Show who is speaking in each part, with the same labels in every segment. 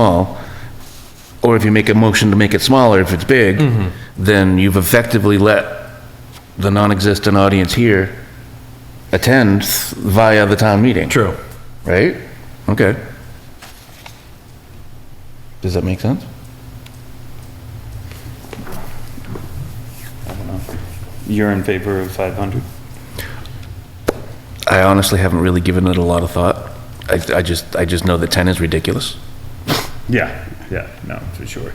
Speaker 1: small, or if you make a motion to make it smaller if it's big, then you've effectively let the non-existent audience here attend via the town meeting.
Speaker 2: True.
Speaker 1: Right? Okay. Does that make sense?
Speaker 3: You're in favor of 500?
Speaker 1: I honestly haven't really given it a lot of thought. I, I just, I just know that 10 is ridiculous.
Speaker 3: Yeah, yeah, no, for sure.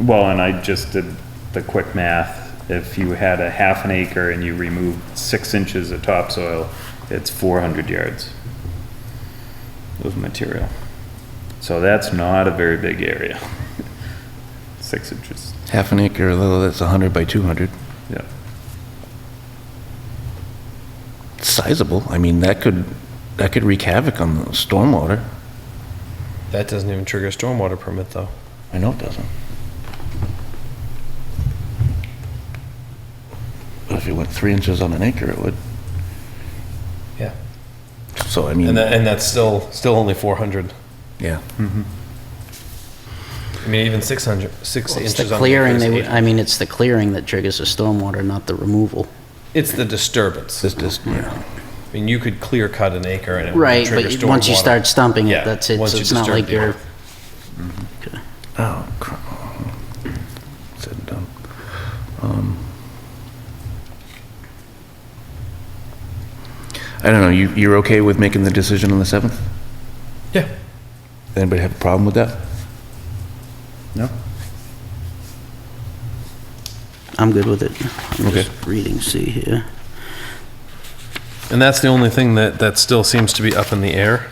Speaker 3: Well, and I just did the quick math. If you had a half an acre and you removed six inches of topsoil, it's 400 yards of material. So that's not a very big area. Six inches,
Speaker 1: Half an acre, although that's 100 by 200.
Speaker 3: yeah.
Speaker 1: It's sizable. I mean, that could, that could wreak havoc on the stormwater.
Speaker 2: That doesn't even trigger a stormwater permit, though.
Speaker 1: I know it doesn't. But if you went three inches on an acre, it would.
Speaker 2: Yeah.
Speaker 1: So I
Speaker 2: And
Speaker 1: mean,
Speaker 2: that, and that's still, still only 400.
Speaker 1: yeah.
Speaker 2: I mean, even 600, six
Speaker 4: It's
Speaker 2: inches
Speaker 4: the
Speaker 2: on
Speaker 4: clearing,
Speaker 2: acre is
Speaker 4: they would-
Speaker 2: eight.
Speaker 4: I mean, it's the clearing that triggers the stormwater, not the removal.
Speaker 2: It's the disturbance.
Speaker 1: This, this, yeah.
Speaker 2: I mean, you could clear cut an acre and it would
Speaker 4: Right,
Speaker 2: trigger stormwater.
Speaker 4: but once you start stumping
Speaker 2: Yeah,
Speaker 4: it, that's it,
Speaker 2: once
Speaker 4: so
Speaker 2: you
Speaker 4: it's not
Speaker 2: disturb
Speaker 4: like
Speaker 2: people.
Speaker 4: you're,
Speaker 1: Oh, crap. Said and done. Um, I don't know, you, you're okay with making the decision on the 7th?
Speaker 2: Yeah.
Speaker 1: Anybody have a problem with that?
Speaker 3: No?
Speaker 4: I'm good with it. I'm
Speaker 1: Okay.
Speaker 4: just reading C here.
Speaker 2: And that's the only thing that, that still seems to be up in the air.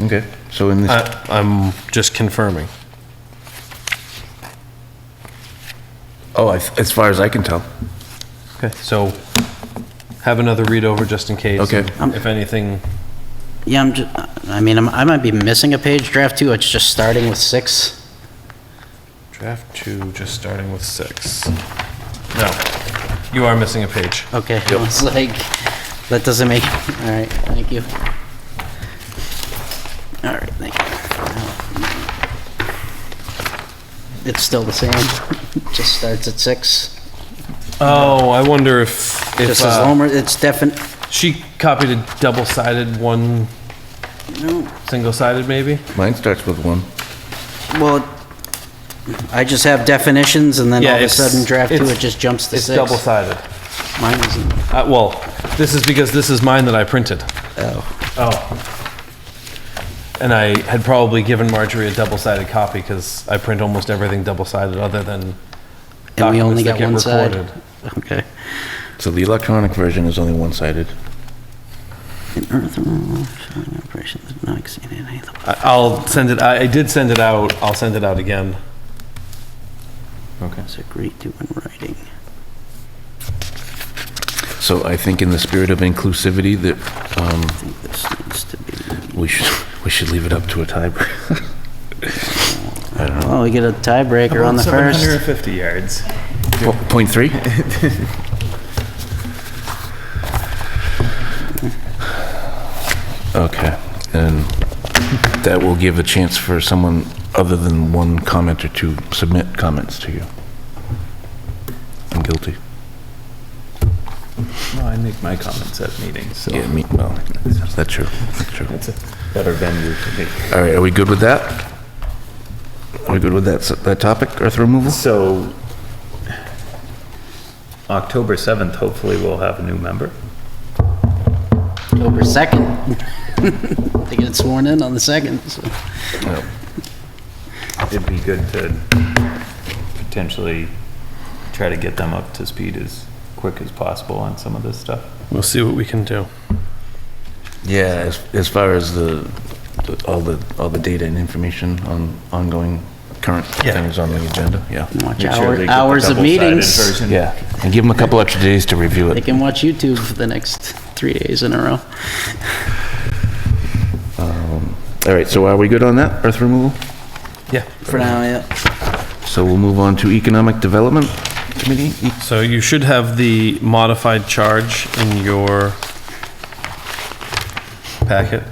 Speaker 1: Okay, so in this,
Speaker 2: I, I'm just confirming.
Speaker 1: oh, I- as far as I can tell.
Speaker 2: Okay. So have another read over just in case.
Speaker 1: Okay.
Speaker 2: and If anything,
Speaker 4: Yeah, I'm just, I mean, I'm- I might be missing a page draft too, it's just starting with six.
Speaker 2: draft two, just starting with six. No, you are missing a page.
Speaker 4: Okay, I was like, that doesn't make, all right, thank you. All right, thank you. It's still the same, just starts at six.
Speaker 2: Oh, I wonder if, if
Speaker 4: Just as
Speaker 2: uh,
Speaker 4: Homer, it's definite,
Speaker 2: she copied a double-sided, one
Speaker 4: no,
Speaker 2: single-sided maybe?
Speaker 1: Mine starts with 1.
Speaker 4: well, I just have definitions and then
Speaker 2: Yeah,
Speaker 4: all of a
Speaker 2: it's-
Speaker 4: sudden draft two,
Speaker 2: it's-
Speaker 4: it just jumps to
Speaker 2: It's
Speaker 4: six.
Speaker 2: double-sided.
Speaker 4: Mine isn't,
Speaker 2: Uh, well, this is because this is mine that I printed.
Speaker 4: oh,
Speaker 2: Oh. And I had probably given Marjorie a double-sided copy because I print almost everything double-sided other than
Speaker 4: and we only
Speaker 2: documents that
Speaker 4: got
Speaker 2: get
Speaker 4: one side.
Speaker 2: recorded.
Speaker 4: Okay.
Speaker 1: So the electronic version is only one-sided.
Speaker 4: An earth removal, showing operation that not exceeding any of the
Speaker 2: I- I'll send it, I I did send it out, I'll send it out again.
Speaker 3: Okay.
Speaker 4: It's agreed to in writing.
Speaker 1: So I think in the spirit of inclusivity, that um,
Speaker 4: I think this needs to be,
Speaker 1: we should, we should leave it up to a tiebreaker.
Speaker 4: oh, we get a tiebreaker on the first.
Speaker 3: 750 yards.
Speaker 1: Po- Point three? Okay, and that will give a chance for someone other than one commenter to submit comments to you. I'm guilty.
Speaker 3: No, I make my comments at meetings, so
Speaker 1: Yeah, me, well, that's true, that's true.
Speaker 3: it's a better venue to make
Speaker 1: All right, are we good with that? Are we good with that, s- that topic, earth removal?
Speaker 3: So, October 7th, hopefully we'll have a new member.
Speaker 4: October 2nd. They get sworn in on the 2nd, so.
Speaker 1: No.
Speaker 3: It'd be good to potentially try to get them up to speed as quick as possible on some of this stuff.
Speaker 2: We'll see what we can do.
Speaker 1: Yeah, as, as far as the, the- all the, all the data and information on ongoing current
Speaker 2: Yeah.
Speaker 1: things on the agenda, yeah.
Speaker 4: Watch
Speaker 3: Make sure
Speaker 4: hour-
Speaker 3: they get the
Speaker 4: hours of
Speaker 3: double-sided
Speaker 4: meetings.
Speaker 3: version.
Speaker 1: Yeah, and give them a couple extra days to review
Speaker 4: They
Speaker 1: it.
Speaker 4: can watch YouTube for the next three days in a row.
Speaker 1: All right, so are we good on that, earth removal?
Speaker 2: Yeah,
Speaker 4: For now, yeah.
Speaker 1: So we'll move on to Economic Development Committee? E-
Speaker 2: so you should have the modified charge in your packet.